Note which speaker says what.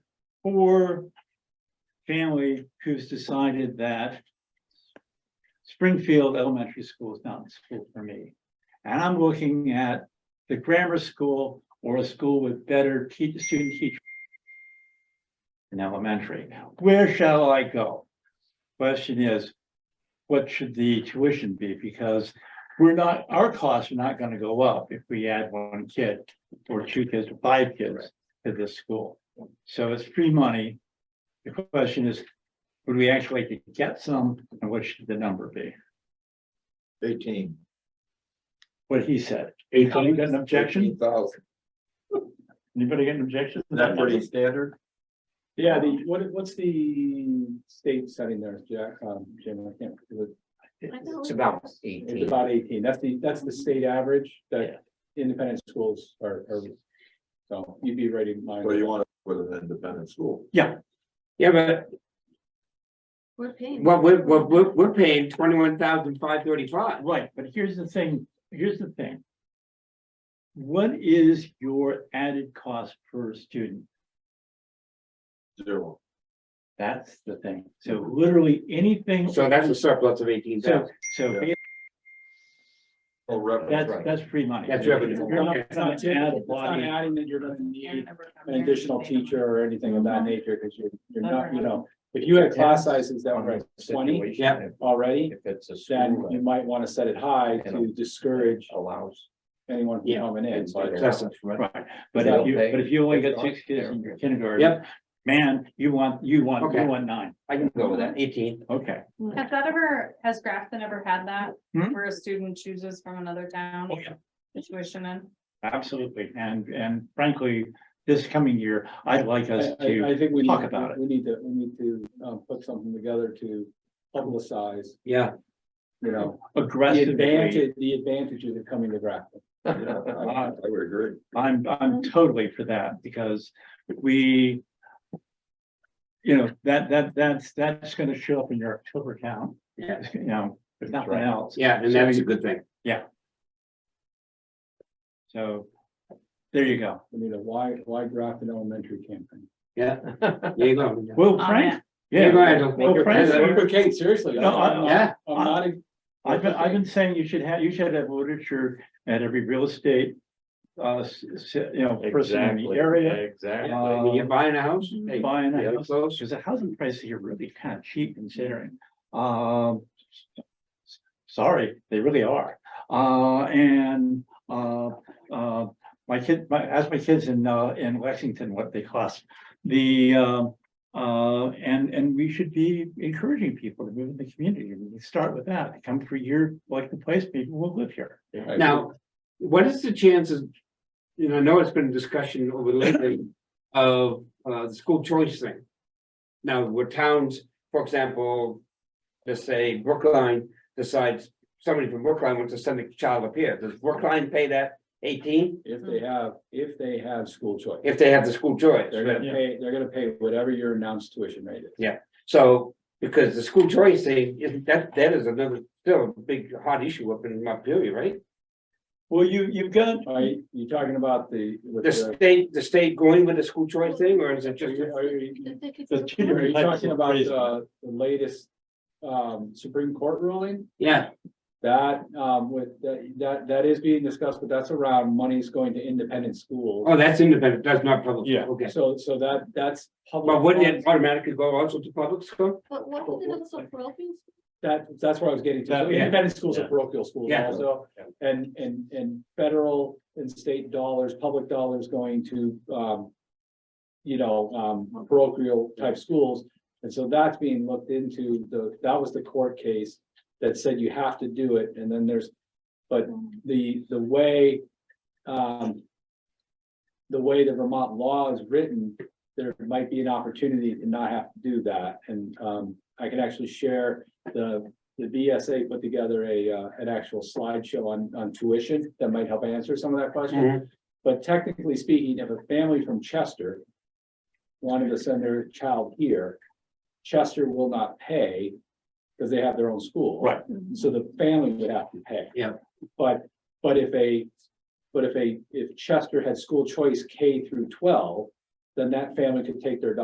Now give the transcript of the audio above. Speaker 1: poor family who's decided that Springfield Elementary School is not the school for me. And I'm looking at the grammar school or a school with better te- student teacher in elementary. Where shall I go? Question is, what should the tuition be? Because we're not, our costs are not gonna go up if we add one kid or two kids or five kids to this school. So it's free money. The question is, would we actually get some and what should the number be?
Speaker 2: Eighteen.
Speaker 1: What he said. Anybody got an objection?
Speaker 2: Thousand.
Speaker 1: Anybody got an objection?
Speaker 2: Is that pretty standard?
Speaker 3: Yeah, the, what, what's the state setting there, Jack, um, Jim, I can't, it's
Speaker 4: It's
Speaker 5: about eighteen.
Speaker 3: about eighteen, that's the, that's the state average
Speaker 1: Yeah.
Speaker 3: that independent schools are, are. So you'd be ready, mine.
Speaker 2: Or you want to put an independent school?
Speaker 5: Yeah, but
Speaker 4: We're paying.
Speaker 5: what we're, what we're, we're paying twenty-one thousand five thirty-five.
Speaker 1: Right, but here's the thing, here's the thing. What is your added cost per student?
Speaker 2: Zero.
Speaker 1: That's the thing. So literally anything.
Speaker 5: So that's a surplus of eighteen
Speaker 1: So,
Speaker 5: thousand.
Speaker 1: so
Speaker 2: Yeah. Oh, revenue,
Speaker 1: that's,
Speaker 2: right.
Speaker 1: that's free money.
Speaker 5: That's revenue.
Speaker 1: You're not
Speaker 3: It's not
Speaker 1: gonna
Speaker 3: it's
Speaker 1: add a
Speaker 3: not
Speaker 1: body.
Speaker 3: adding that you're gonna need an
Speaker 4: An
Speaker 3: additional teacher or anything of that nature, because you're, you're not, you know, if you had class sizes that were at twenty
Speaker 5: yeah.
Speaker 3: already,
Speaker 6: it's a
Speaker 3: then you might want to set it high to discourage
Speaker 6: allows.
Speaker 3: anyone from
Speaker 5: Yeah.
Speaker 3: coming in. but-
Speaker 1: Right, but if you, but if you only get six kids in your kindergarten.
Speaker 5: Yep.
Speaker 1: Man, you want, you want, you
Speaker 5: Okay.
Speaker 1: want nine,
Speaker 5: I can go with that, eighteen.
Speaker 1: okay.
Speaker 4: Has that ever, has Grafton ever had that,
Speaker 1: Hmm?
Speaker 4: where a student chooses from another town?
Speaker 1: Oh, yeah.
Speaker 4: the Tuition in,
Speaker 1: Absolutely, and, and frankly, this coming year, I'd like us
Speaker 3: I, I,
Speaker 1: to,
Speaker 3: I think we
Speaker 1: talk
Speaker 3: need,
Speaker 1: about it.
Speaker 3: we need to, we need to, um, put something together to publicize,
Speaker 5: Yeah,
Speaker 3: you know, the
Speaker 1: aggressively,
Speaker 3: advantage, the advantages of coming to Grafton.
Speaker 2: Yeah, I I would agree.
Speaker 1: I'm, I'm totally for that, because we. You know, that, that, that's, that's gonna show up in your October count,
Speaker 5: yeah,
Speaker 1: you know, if nothing
Speaker 6: right.
Speaker 1: else,
Speaker 5: yeah, and that's a good thing.
Speaker 1: so. There you go,
Speaker 3: We need a uh, why, why Grafton Elementary campaign.
Speaker 5: Yeah, there you go.
Speaker 1: well,
Speaker 4: Oh,
Speaker 1: Frank,
Speaker 5: You go
Speaker 1: yeah,
Speaker 5: ahead,
Speaker 1: Well,
Speaker 5: Bill.
Speaker 1: Frank-
Speaker 5: Yeah,
Speaker 3: Okay, seriously.
Speaker 1: No, I-
Speaker 3: I'm not-
Speaker 5: Yeah.
Speaker 3: I'm not, a-
Speaker 1: I've been, I've been saying you should have, you should have literature at every real estate. Uh, s- s- you know, person in the
Speaker 6: Exactly,
Speaker 1: area,
Speaker 6: Exactly.
Speaker 1: Uh,
Speaker 5: When you're buying a house, hey,
Speaker 1: buying
Speaker 5: the
Speaker 1: a
Speaker 5: other
Speaker 1: house.
Speaker 5: close.
Speaker 1: because the housing prices here are really kind of cheap considering, um. s- Sorry, they really are, uh, and, uh, uh, my kid, my, ask my kids in, uh, in Lexington what they cost. The, um, uh, and, and we should be encouraging people to move in the community, we can start with that, come for your, like the place, people will live here.
Speaker 5: Now, what is the chances, you know, I know it's been discussion over lately of uh the school choice thing. Now, where towns, for example, let's say Brookline decides, somebody from Brookline wants to send a child up here, does Brookline pay that eighteen?
Speaker 3: if they have, if they have school choice,
Speaker 5: If they have the school choice,
Speaker 3: they're
Speaker 5: right?
Speaker 3: gonna pay, they're gonna pay whatever your announced tuition rate is.
Speaker 5: so, because the school choice thing, isn't that, that is another, still a big hot issue up in Montpelier, right?
Speaker 1: Well, you, you've got,
Speaker 3: Are you, you talking about the? with
Speaker 5: The state, the state going with the school choice thing, or is it
Speaker 3: Are
Speaker 5: just?
Speaker 3: you, are you,
Speaker 1: The
Speaker 3: Are
Speaker 1: children-
Speaker 3: you talking about
Speaker 1: Crazy.
Speaker 3: uh, the latest um, Supreme Court ruling?
Speaker 5: Yeah,
Speaker 3: That um, with, that, that that is being discussed, but that's around money's going to independent schools.
Speaker 5: oh, that's independent, that's not public.
Speaker 1: Yeah.
Speaker 5: Okay.
Speaker 3: So, so that, that's. public
Speaker 5: But wouldn't it
Speaker 3: funds.
Speaker 5: automatically go also to public school?
Speaker 4: But what
Speaker 3: did it also
Speaker 4: parochial?
Speaker 3: That, that's where I was getting to. So
Speaker 1: That- yeah.
Speaker 3: Independent schools are
Speaker 1: Yeah.
Speaker 3: parochial schools
Speaker 5: Yeah.
Speaker 3: also. And, and, and federal and state dollars, public dollars going to, um, you know, um, parochial type schools. And so that's being looked into. The, that was the court case that said you have to do it. And then there's the, the way, um, the way the Vermont law is written, there might be an opportunity to not have to do that. And, um, I can actually share the, the VSA put together a, uh, an actual slideshow on, on tuition that might help answer some of that question. But technically speaking, if a family from Chester wanted to send their child here, Chester will not pay because they have their own school.
Speaker 1: Right.
Speaker 3: So the family would have to pay.
Speaker 5: Yeah.
Speaker 3: But, but if a, but if a, if Chester had school choice K through twelve, then that family could take their